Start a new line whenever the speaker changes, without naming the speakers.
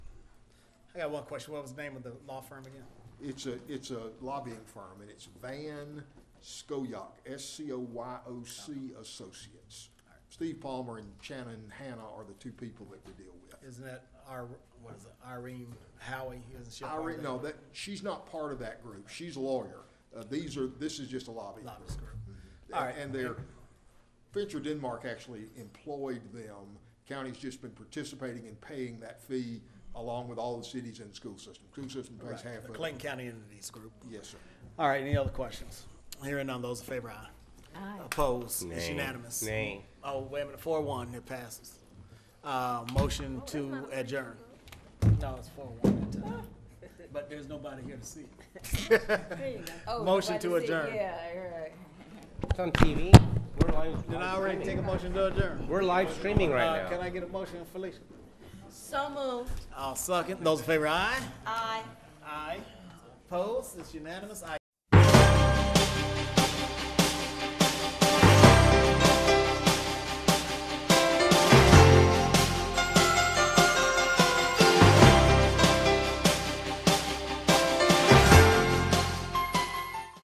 I got one question. What was the name of the law firm again?
It's a, it's a lobbying firm, and it's Van Scoyoc, S-C-O-Y-O-C Associates. Steve Palmer and Shannon Hannah are the two people that we deal with.
Isn't that our, what is it, Irene Howie? Isn't she a part of
Irene,
that?
no, that, she's not part of that group, she's a lawyer. Uh, these are, this is just a lobbying group. Mm-hmm.
Lobbyist group. All right.
And their, Venture Denmark actually employed them. County's just been participating in paying that fee along with all the cities and the school system. School system pays half
The
of it.
Clayton County Entities Group.
Yes, sir.
All right, any other questions? Hearing none, those in favor, aye.
Aye.
Opposed, it's
Nay.
unanimous.
Nay.
Oh, wait a minute, four one, it passes. Uh, motion to adjourn. No, it's four one that time, but there's nobody here to see it.
Oh,
Motion to
nobody said-
adjourn.
Yeah, right.
It's on TV. We're live.
Did I already take a motion to adjourn?
We're live streaming right
Uh,
now.
Can I get a motion, Felicia?
So moved.
I'll second. Those in favor, aye?
Aye.
Aye. Opposed, it's unanimous, aye.